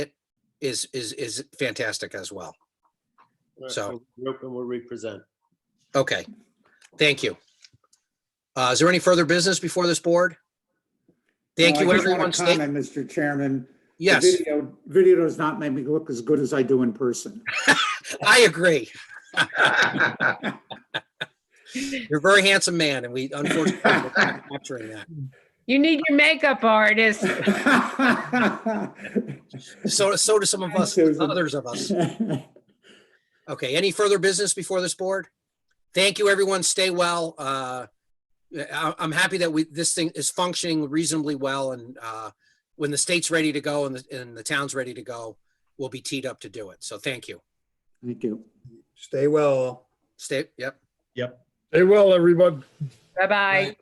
is, is, is fantastic as well. So- Group and we'll represent. Okay, thank you. Uh, is there any further business before this board? Thank Uh, you, I just everyone. want to Stay- comment, Mr. Chairman. The Yes, video- Video does not make me look as good as I do in person. I agree. You're a very handsome man and we unfortunately are not capturing that. You need your makeup artist. So, so do some of us, Thanks, Susan. others of us. Okay, any further business before this board? Thank you, everyone. Stay well. Uh, I, I'm happy that we, this thing is functioning reasonably well and, uh, when the state's ready to go and the, and the town's ready to go, we'll be teed up to do it. So thank you. Thank you. Stay well. Stay, yep. Bye-bye.